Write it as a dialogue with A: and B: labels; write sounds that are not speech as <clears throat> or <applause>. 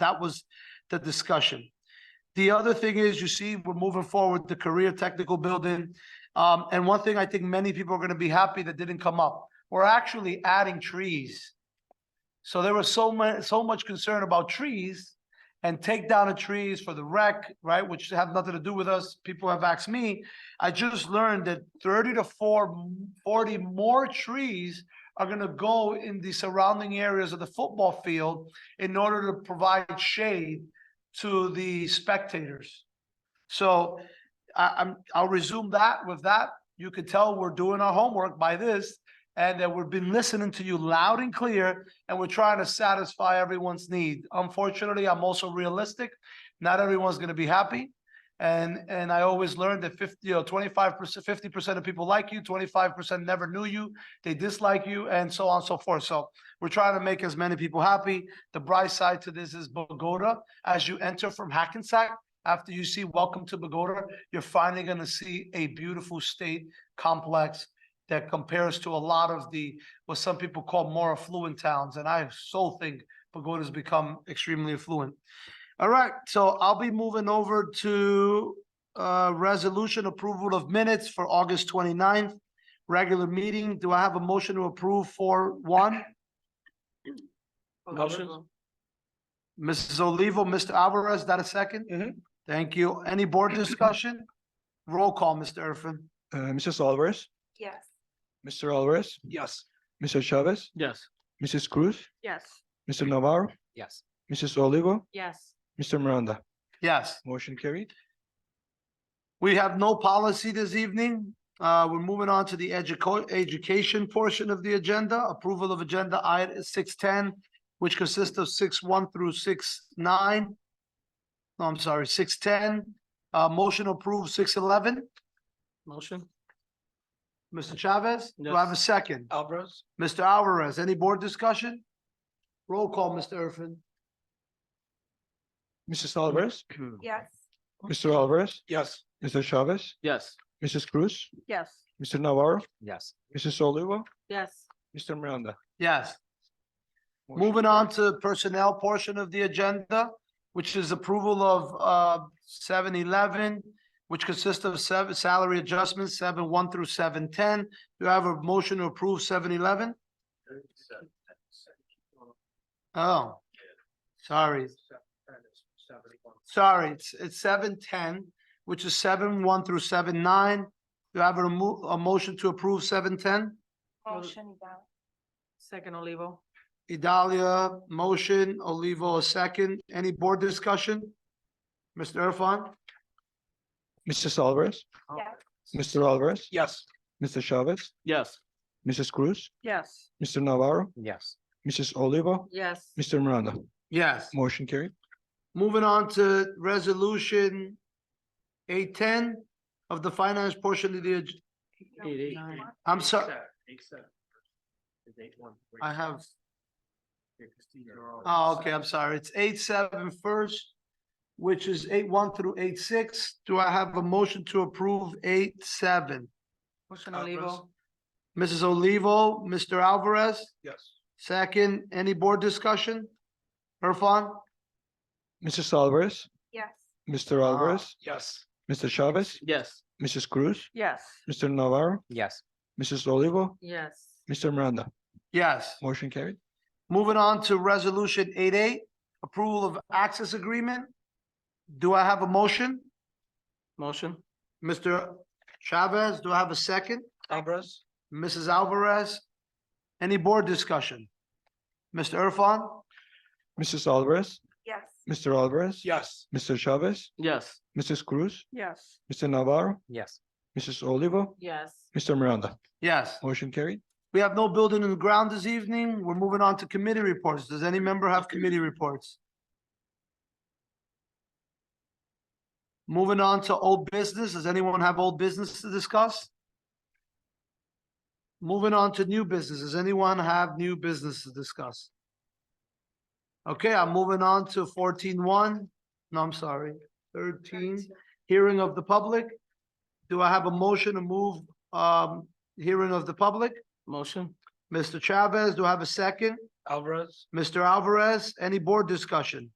A: That was the discussion. The other thing is, you see, we're moving forward, the career technical building. Um, and one thing I think many people are gonna be happy that didn't come up, we're actually adding trees. So there was so much, so much concern about trees and take down of trees for the wreck, right, which have nothing to do with us. People have asked me. I just learned that thirty to four, forty more trees are gonna go in the surrounding areas of the football field in order to provide shade to the spectators. So I, I'm, I'll resume that with that. You can tell we're doing our homework by this and that we've been listening to you loud and clear and we're trying to satisfy everyone's need. Unfortunately, I'm also realistic. Not everyone's gonna be happy. And, and I always learned that fifty, you know, twenty-five percent, fifty percent of people like you, twenty-five percent never knew you, they dislike you and so on and so forth. So we're trying to make as many people happy. The bright side to this is Bogota. As you enter from Hackensack, after you see Welcome to Bogota, you're finally gonna see a beautiful state complex that compares to a lot of the, what some people call more affluent towns, and I so think Bogota's become extremely affluent. All right, so I'll be moving over to uh resolution approval of minutes for August 29th, regular meeting. Do I have a motion to approve for one?
B: Motion?
A: Mrs. Olivo, Mr. Alvarez, that a 2nd
B: Mhm.
A: Thank you. Any board discussion? Roll call, Mr. Erfan.
C: Uh, Mrs. Alvarez,
D: Yes.
C: Mr. Alvarez,
B: Yes.
C: Mr. Chavez,
B: Yes.
C: Mrs. Cruz,
D: Yes.
C: Mr. Navarro,
B: Yes.
C: Mrs. Olivo,
D: Yes.
C: Mr. Miranda.
A: Yes,
C: Motion carried.
A: we have no policy this evening. Uh, we're moving on to the educo- education portion of the agenda, approval of agenda item six ten, which consists of six one through six nine. No, I'm sorry, six ten, uh, motion approved six eleven.
B: Motion?
A: Mr. Chavez, do I have a
B: Yes. Uh,
A: second?
B: <clears throat> Alvarez?
A: Mr. Alvarez, any board discussion? Roll call, Mr. Erfan.
C: Mrs. Alvarez,
D: Yes.
C: Mr. Alvarez,
B: Yes.
C: Mr. Chavez,
B: Yes.
C: Mrs. Cruz,
D: Yes.
C: Mr. Navarro,
B: Yes.
C: Mrs. Olivo,
D: Yes.
C: Mr. Miranda.
A: Yes.
C: Motion
A: Moving
C: carried.
A: on to personnel portion of the agenda, which is approval of uh seven eleven, which consists of seven salary adjustments, seven one through seven ten. Do I have a motion to approve seven eleven? Oh, sorry, sorry, it's it's seven ten, which is seven one through seven nine. Do I have a mo- a motion to approve seven ten?
D: Motion, Gal. Second, Olivo.
A: Idalia, motion, Olivo, a second. Any board discussion? Mr. Irfan?
C: Mrs. Alvarez,
D: Yes.
C: Mr. Alvarez,
B: Yes.
C: Mr. Chavez,
B: Yes.
C: Mrs. Cruz,
D: Yes.
C: Mr. Navarro,
B: Yes.
C: Mrs. Olivo,
D: Yes.
C: Mr. Miranda.
A: Yes.
C: Motion carried.
A: Moving on to resolution eight ten of the finance portion of the, ag-
B: Eight, eight.
A: I'm sorry, I have, oh, okay, I'm sorry, it's eight seven first, which is eight one through eight six. Do I have a motion to approve eight seven?
D: Motion,
B: Alvarez.
D: Olivo.
A: Mrs. Olivo, Mr. Alvarez,
B: Yes.
A: second, any board discussion? Irfan?
C: Mrs. Alvarez,
D: Yes.
C: Mr. Alvarez,
B: Yes.
C: Mr. Chavez,
B: Yes.
C: Mrs. Cruz,
D: Yes.
C: Mr. Navarro,
B: Yes.
C: Mrs. Olivo,
D: Yes.
C: Mr. Miranda.
A: Yes.
C: Motion carried.
A: Moving on to resolution eight eight, approval of access agreement. Do I have a motion?
B: Motion?
A: Mr. Chavez, do I have a second?
B: Alvarez?
A: Mrs. Alvarez? Any board discussion? Mr. Irfan?
C: Mrs. Alvarez,
D: Yes.
C: Mr. Alvarez.
B: Yes.
C: Mr. Chavez,
B: Yes.
C: Mrs. Cruz,
D: Yes.
C: Mr. Navarro,
B: Yes.
C: Mrs. Olivo,
D: Yes.
C: Mr. Miranda.
A: Yes,
C: Motion carried.
A: we have no building in the ground this evening. We're moving on to committee reports. Does any member have committee reports? Moving on to old business. Does anyone have old business to discuss? Moving on to new business. Does anyone have new business to discuss? Okay, I'm moving on to fourteen one. No, I'm sorry, thirteen, hearing of the public. Do I have a motion to move um hearing of the public?
B: Motion?
A: Mr. Chavez, do I have a second?
B: Alvarez?
A: Mr. Alvarez, any board discussion?